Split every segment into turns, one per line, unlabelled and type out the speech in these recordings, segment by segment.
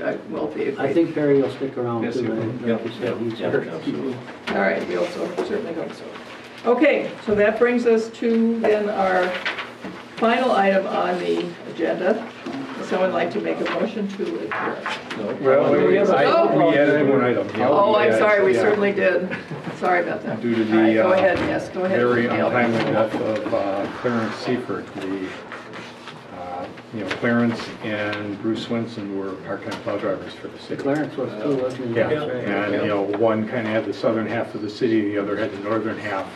that will be a
I
great,
think Perry will stick around
Yes,
too,
he will.
right? Like you said,
Yeah,
he's-
yeah, absolutely.
all right, we also certainly hope so. Okay, so that brings us to then our final item on the agenda. Would Someone like to make a motion to adjourn?
Well, we
have a-
I- we added one item.
Oh, I'm sorry, we
uh, Yeah.
certainly did. Sorry about that.
Due to the,
All right, Go
uh,
ahead, yes, go ahead.
Very
Dale.
untimely death of uh, Clarence Seifert. We, uh, you know, Clarence and Bruce Swenson were part-time plow drivers for the city.
Clarence was too, wasn't he?
Yeah, and, you know, one kind of had the southern half of the city, the other had the northern half.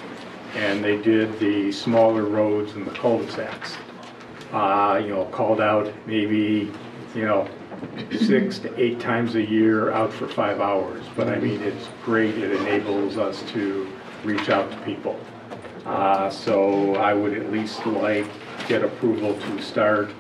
And they did the smaller roads and the cul-de-sacs. Uh, You know, called out maybe, you know, six to eight times a year out for five hours. But I mean, it's great, it enables us to reach out to people. Uh, So I would at least like get approval to start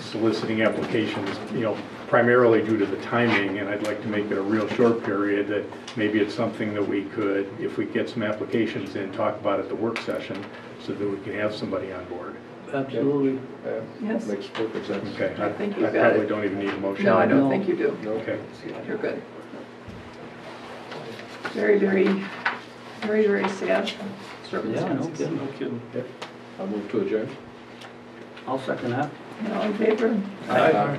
soliciting applications, you know, primarily due to the timing, and I'd like to make it a real short period, that maybe it's something that we could, if we get some applications in, talk about at the work session, so that we can have somebody on board.
Absolutely.
Yes.
Makes perfect sense.
Okay?
I think you got
I probably
it.
don't even need a motion.
No, I
No.
don't think you do.
Okay.
You're good. Very, very, very, very sad
Yeah, no
circumstances.
kidding.
kidding. I'll move to adjourn.
I'll second that.
You know, in favor?
Aye.